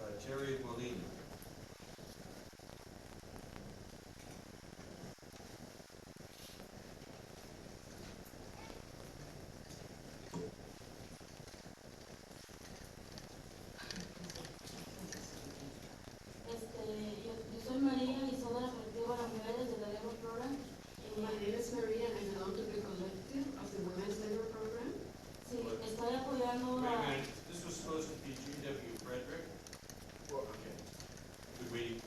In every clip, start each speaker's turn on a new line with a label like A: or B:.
A: Uh, Jerry Molina.
B: Este, yo, yo soy María y soy de la colectiva Las Mujeres de la Demo Program.
C: My
B: Eh,
C: name is Maria and I belong to the collective of the Women's Labor Program.
B: sí, estoy apoyando
A: Wait a
B: a...
A: minute, this was supposed to be G.W. Frederick? Well, okay. Could we,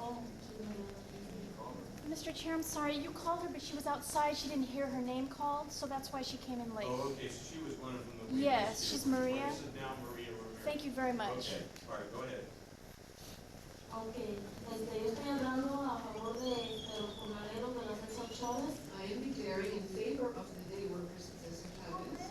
B: Oh, sí, no,
D: Mr. Chair, I'm sorry, you called her, but she was outside, she didn't hear her name called, so that's why she came in late.
A: oh, okay, so she was one of them that we...
D: Yes,
A: listed.
D: she's Maria.
A: This is now Maria Rivera.
D: Thank you very much.
A: Okay, all right, go ahead.
B: no. Ok, este, yo estoy hablando a favor de, de los jornaleros de la César Chávez,
C: I am declaring in favor of the day workers of Cesar Chavez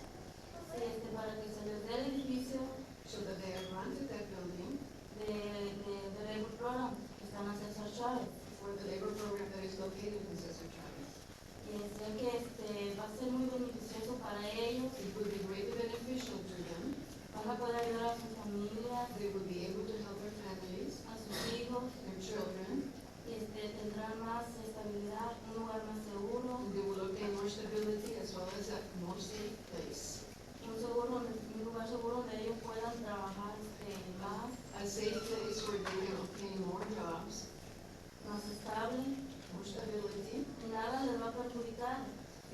B: este, para que se les dé el edificio
C: so that they are granted that building
B: de, de, de Labor Program que está en la César Chávez.
C: for the labor program that is located in Cesar Chavez.
B: Y Eh, sé que este, va a ser muy beneficioso para ellos,
C: It will be greatly beneficial to them.
B: van a poder ayudar a sus familias,
C: They will be able to help their families,
B: a sus hijos,
C: their children,
B: este, tendrán más estabilidad, un lugar más seguro,
C: and they will obtain more stability as well as a more safe place.
B: un seguro, donde- un lugar seguro donde ellos puedan trabajar este, más,
C: A safe place where they can obtain more jobs,
B: más estable,
C: more stability.
B: nada les va a perjudicar,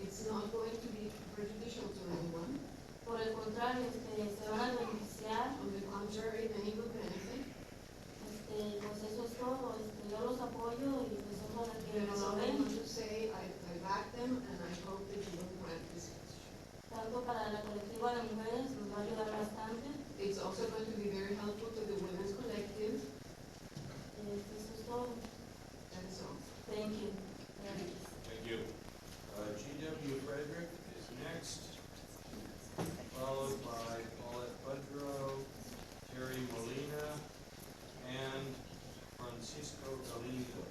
C: It's not going to be prejudicial to anyone.
B: por el contrario, este, se van a beneficiar,
C: On the contrary, many will benefit.
B: este, pues eso es todo, este, yo los apoyo y pues eso es lo que
C: And
B: nos
C: all I want
B: ven,
C: to say, I, I back them and I hope that you will grant this petition.
B: tanto para la colectiva de mujeres, nos va a ayudar bastante,
C: It's also going to be very helpful to the women's collective,
B: este, eso es todo,
C: and so.
B: thank you. Gracias.
A: Thank you. Uh, G.W. Frederick is next, followed by Paulette Budrow, Terry Molina, and Francisco Galindo.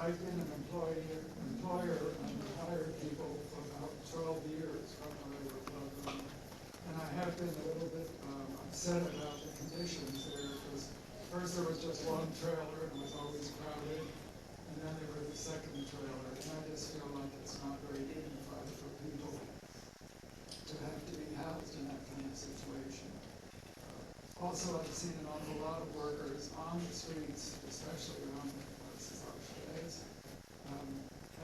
E: I've been an employee, employer and hired people for about twelve years from my labor program. And I have been a little bit um, upset about the conditions there, because first there was just one trailer and it was always crowded, and then there was a second trailer, and I just feel like it's not very dignified for people to have to be housed in that kind of situation. Also, I've seen an awful lot of workers on the streets, especially around the places like today's, um,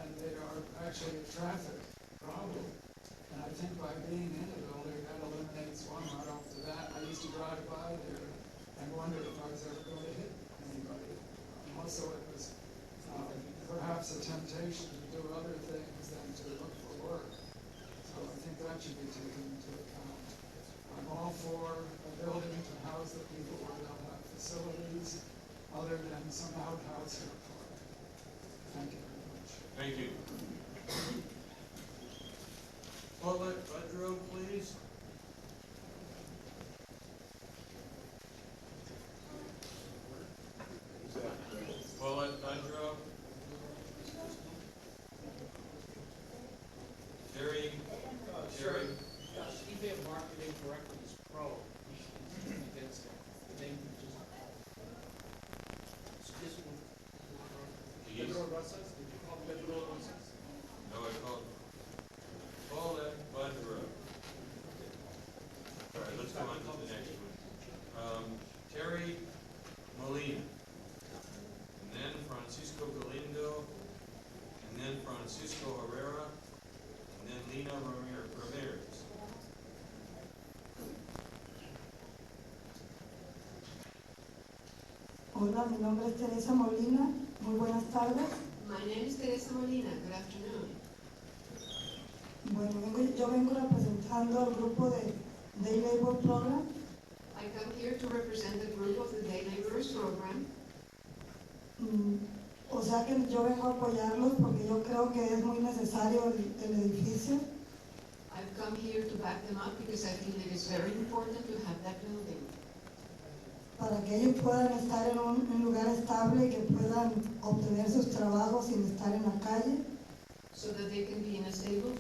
E: and they are actually a traffic problem. And I think by being in the building, that eliminates one right off the bat. I used to drive by there and wonder if I was ever going to hit anybody. And Also, it was um, perhaps a temptation to do other things than to look for work. So I think that should be taken into account. I'm all for a building to house the people where they'll have facilities other than some outhouse or park. Thank you very much.
A: Thank you. Paulette Budrow, please. Paulette Budrow. Terry, Terry,
F: Yeah, eBay marketing directly is pro, we should be against that, the name is just. So this one.
A: Yes.
F: Pedro Rosas, did you call Pedro Rosas?
A: no, I called Paulette Budrow. All right, let's go on to the next one. Um, Terry Molina. And then Francisco Galindo, and then Francisco Herrera, and then Lina Ramir- Ramirez.
G: Hola, mi nombre es Teresa Molina. Muy buenas tardes.
C: My name is Teresa Molina, good afternoon.
G: Bueno, vengo- yo vengo representando al grupo de Day Labor Program.
C: I come here to represent the group of the day laborers program.
G: Mm, O sea que yo vengo a apoyarlos porque yo creo que es muy necesario el, el edificio.
C: I've come here to back them up because I feel it is very important to have that building.
G: para que ellos puedan estar en un, un lugar estable y que puedan obtener sus trabajos sin estar en la calle.
C: so that they can be in a stable